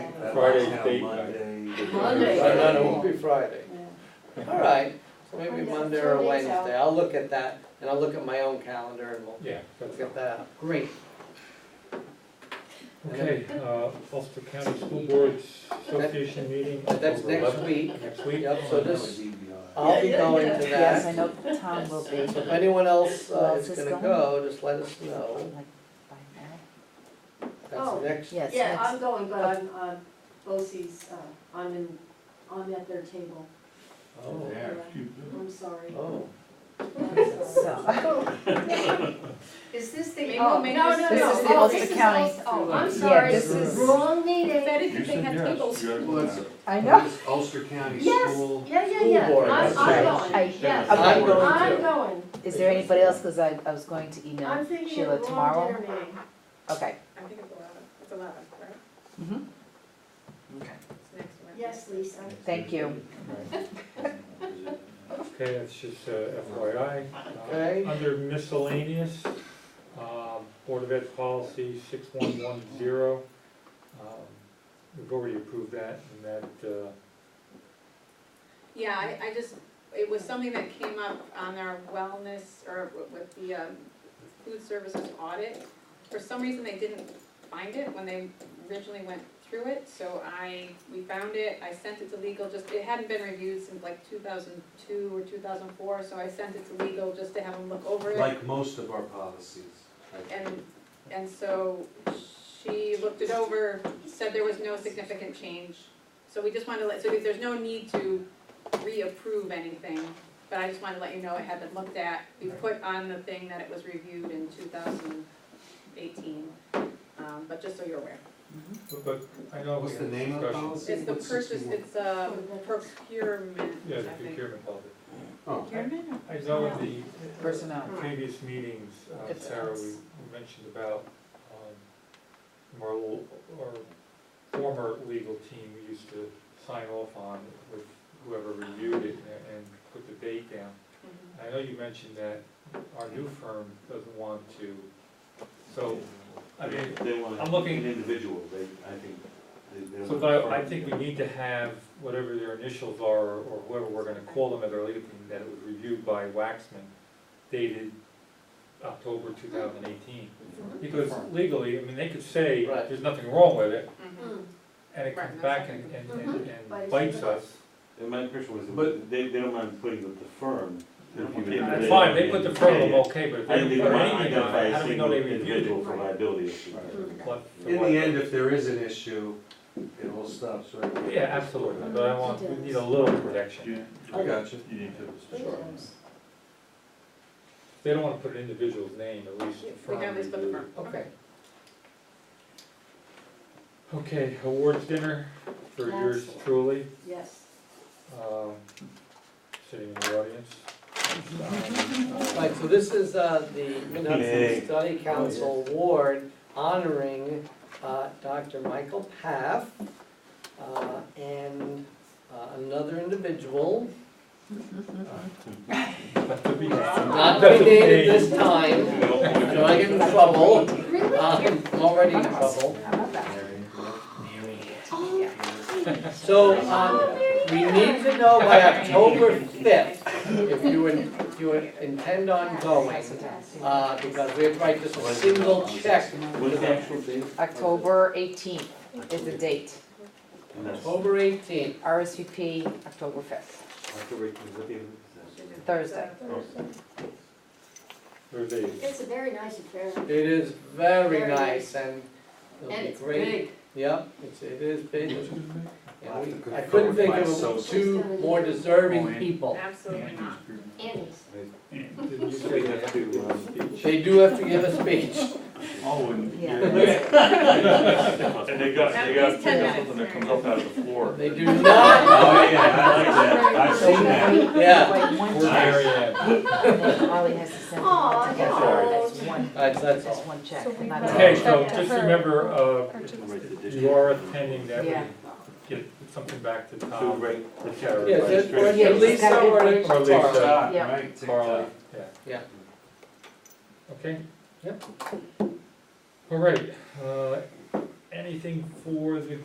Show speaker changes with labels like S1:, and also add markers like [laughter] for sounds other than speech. S1: that
S2: Friday's
S1: last
S2: date night.
S1: Monday.
S3: Monday.
S2: I know, it won't be Friday.
S4: All right, so maybe
S3: Find out
S4: Monday
S3: two
S4: or
S3: days
S4: Wednesday, I'll look at that, and I'll look at my own calendar and we'll
S2: Yeah. that's
S4: look at that up, great.
S2: Okay, uh, Ulster County School Boards Association meeting.
S4: But that's
S2: October
S4: next
S2: 11th.
S4: week,
S2: Next week?
S4: Yep, so
S2: Uh,
S4: this-
S1: That
S4: I'll be
S3: Yeah, yeah,
S4: going
S3: yeah.
S4: to
S5: Yes, I
S4: that.
S5: know Tom will be.
S4: So if anyone else
S5: Who
S4: uh,
S5: else
S4: is
S5: is
S4: gonna
S5: going?
S4: go, just let us know,
S5: Like, by now?
S4: that's
S3: Oh.
S4: next,
S5: Yes,
S3: Yeah,
S5: yes.
S3: I'm going, but I'm, uh, BOSI's, uh, I'm in, I'm at their table.
S4: oh,
S3: I'm sorry. [laughs]
S4: oh.
S3: I'm sorry.
S5: So,
S6: Is this the,
S3: Oh,
S6: oh,
S3: no, no, no.
S5: This is the
S3: Oh,
S5: Ulster
S3: this is
S5: County.
S3: Ulster- Oh, I'm
S5: Yeah,
S3: sorry.
S5: this is-
S3: Wrong meeting.
S6: if they had tables.
S5: I know,
S1: Ulster County
S3: Yes,
S1: School.
S3: yeah, yeah,
S4: School
S3: yeah.
S4: board,
S3: I'm, I'm
S4: right.
S3: going,
S5: I-
S3: yes.
S4: I'm
S5: Okay.
S4: going
S3: I'm
S4: to.
S3: going.
S5: is there anybody else, cause I, I was going to email
S3: I'm thinking
S5: Sheila
S3: of wrong dinner
S5: tomorrow,
S3: meeting.
S5: okay.
S7: I think it's eleven, it's eleven, right?
S5: Mhm. Okay,
S7: It's next one.
S3: Yes, Lisa.
S5: thank you.
S2: Okay, that's just uh, FYI. Uh,
S4: Okay.
S2: Under miscellaneous, um, Board of Ed Policy 6110. um, We've already approved that, and that, uh,
S7: Yeah, I, I just, it was something that came up on our wellness, or with the, um, food services audit. For some reason, they didn't find it when they originally went through it, so I, we found it, I sent it to legal, just, it hadn't been reviewed since like two thousand two or two thousand four, so I sent it to legal just to have them look over it.
S1: Like most of our policies.
S7: And, and so she looked it over, said there was no significant change. So we just wanted to let, so there's no need to reapprove anything, but I just wanted to let you know it had been looked at. We put on the thing that it was reviewed in two thousand eighteen, um, but just so you're aware.
S3: Mm-hmm.
S2: but- but I know. we
S1: What's the
S2: had
S1: name of the
S2: discussion.
S1: policy?
S7: It's the
S1: What's
S7: purchase,
S1: 61?
S7: it's uh procurement,
S2: Yeah,
S7: I
S2: the
S7: think.
S2: procurement policy.
S1: Oh,
S7: Procurement or-
S2: I know in the.
S5: Personnel.
S2: Previous meetings, uh,
S5: It's
S2: Sarah, we
S5: us.
S2: we mentioned about, um, our, l- our former legal team we used to sign off on with whoever reviewed it and, and put the date down.
S7: Mhm.
S2: I know you mentioned that our new firm doesn't want to, so, I mean,
S1: They want
S2: I'm looking-
S1: An individual, they, I think. they- they
S2: so
S1: want
S2: but
S1: a
S2: I, I
S1: firm.
S2: think we need to have whatever their initials are, or whoever we're gonna call them at our legal team, that it was reviewed by Waxman dated October two thousand eighteen. Because legally, I mean, they could say,
S4: Right.
S2: there's nothing wrong with it,
S7: Mhm.
S3: Mm.
S2: and it
S7: Right,
S2: comes
S7: Mm-hmm. that's
S2: back
S7: what I
S2: and, and,
S3: think.
S2: and and
S3: Mhm.
S2: bites us.
S1: And my impression was,
S2: But-
S1: that they, they don't mind putting with the firm.
S2: They don't
S1: if you-
S2: And
S1: if
S2: That's fine, they put the firm,
S1: Yeah,
S2: I'm
S1: yeah.
S2: okay, but if
S1: I
S2: they don't
S1: think they
S2: put
S1: want to
S2: anything on
S1: identify
S2: it,
S1: a
S2: how do we know
S1: single
S2: they reviewed it?
S1: individual for liability issues.
S2: What-
S1: In
S2: what-
S1: the end, if there is an issue, it all stops right there.
S2: Yeah, absolutely, but I want, we need a little protection.
S1: I got you.
S2: They don't wanna put an individual's name, at least the
S7: We
S2: firm.
S7: have this for the
S2: reviewed.
S7: firm, okay.
S2: Okay. Okay, awards dinner for yours truly,
S3: Yes.
S2: um, sitting in the audience.
S4: Right, so this is uh, the
S1: Yay. Oh,
S4: Menneson Study Council Award honoring uh, Dr. Michael Paff uh, and uh, another individual, not to be named this time, so I get in trouble.
S3: Really?
S4: Um, I'm already in trouble.
S5: How about that?
S3: Oh,
S4: So um, we need to know by October 5th if you in- if you intend on
S1: Oh,
S4: going, uh, because we have to write just a single check.
S1: What's the actual date?
S5: October eighteenth is the date,
S1: And that's
S4: October 18th.
S5: RSVP, October fifth,
S1: October eighteenth, what day is that?
S5: Thursday.
S2: Oh. Thursday.
S3: It's a very nice affair.
S4: It is very
S3: Very
S4: nice and
S3: And
S4: it'll be
S3: it's
S4: great.
S3: big.
S4: Yep, it's, it is big.
S1: I'll have to
S4: I
S1: confirm
S4: couldn't
S1: with
S4: think
S1: my
S4: of
S1: associate.
S4: two more deserving people.
S7: Absolutely not.
S3: Annie's.
S2: Did you
S1: So
S2: say
S1: we
S2: they have
S1: have to, um,
S2: to speak?
S4: They do have to give a speech.
S5: Yeah.
S8: And they got, they
S7: At
S8: got
S7: least 10
S8: something that
S7: minutes.
S8: comes up out of the floor.
S4: They
S1: [laughs]
S4: do not,
S1: Oh, yeah, I like that, I've seen that.
S4: yeah.
S5: Like one
S2: Poor
S5: check,
S2: Mary Ann.
S5: and then Holly has to send.
S3: Aw,
S5: it.
S3: no.
S5: That's one,
S4: That's, that's
S5: that's
S4: all.
S5: one check.
S9: So we
S5: not-
S9: might-
S2: Okay, so just remember, uh, if you are attending, that
S5: Yeah.
S2: we get something back to
S1: So,
S2: Tom,
S1: right,
S2: the terror,
S4: Yes,
S2: right?
S4: it's- or it's at least uh,
S5: Yes.
S4: or
S2: Or
S4: it's
S2: Lisa.
S4: Tara.
S5: Yeah.
S1: right,
S2: Carly, yeah.
S4: Yeah.
S2: Okay? Yep. All right, uh, anything for the